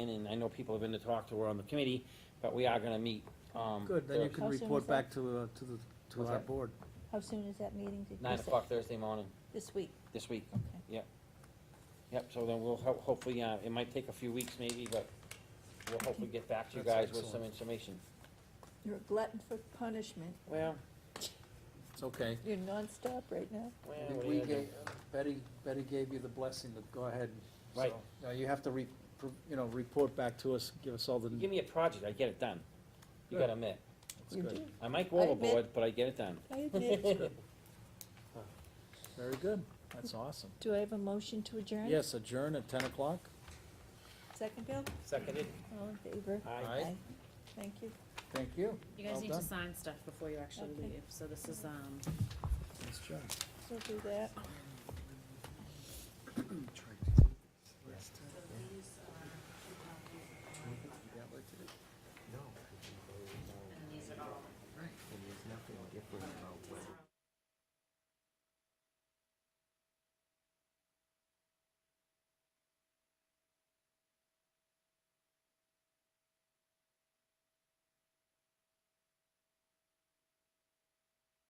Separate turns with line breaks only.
in, and I know people have been to talk to her on the committee, but we are gonna meet, um.
Good, then you
Thursday,
can
How soon
report
is that?
back to, uh, to the, to
What's
our
that?
board.
How soon is that meeting? Did you
Nine
say?
o'clock Thursday morning,
This week,
this week,
okay.
yep, so then we'll ho- hopefully, uh, it might take a few weeks maybe, but we'll hopefully get back to you
That's
guys with some
excellent.
information.
You're a glutton for punishment.
Well,
It's okay.
You're nonstop right now.
well,
I
what
think
are
we
you gonna do?
gave, Betty, Betty gave you the blessing to go ahead. so,
Right.
Now, you have to re, pr- you know, report back to us, give us all the,
You give me a project, I get it done, you gotta admit,
that's
You
good,
do.
I might go
I admit-
overboard, but I get it done.
I admit.
very good, that's awesome.
Do I have a motion to adjourn?
Yes, adjourn at ten o'clock?
Second, Bill?
Seconded,
All in favor?
aye.
Aye.
Thank you.
Thank you.
You guys
Well
need to
done.
sign stuff before you actually
Okay.
leave, so this is, um,
Nice job.
So do that.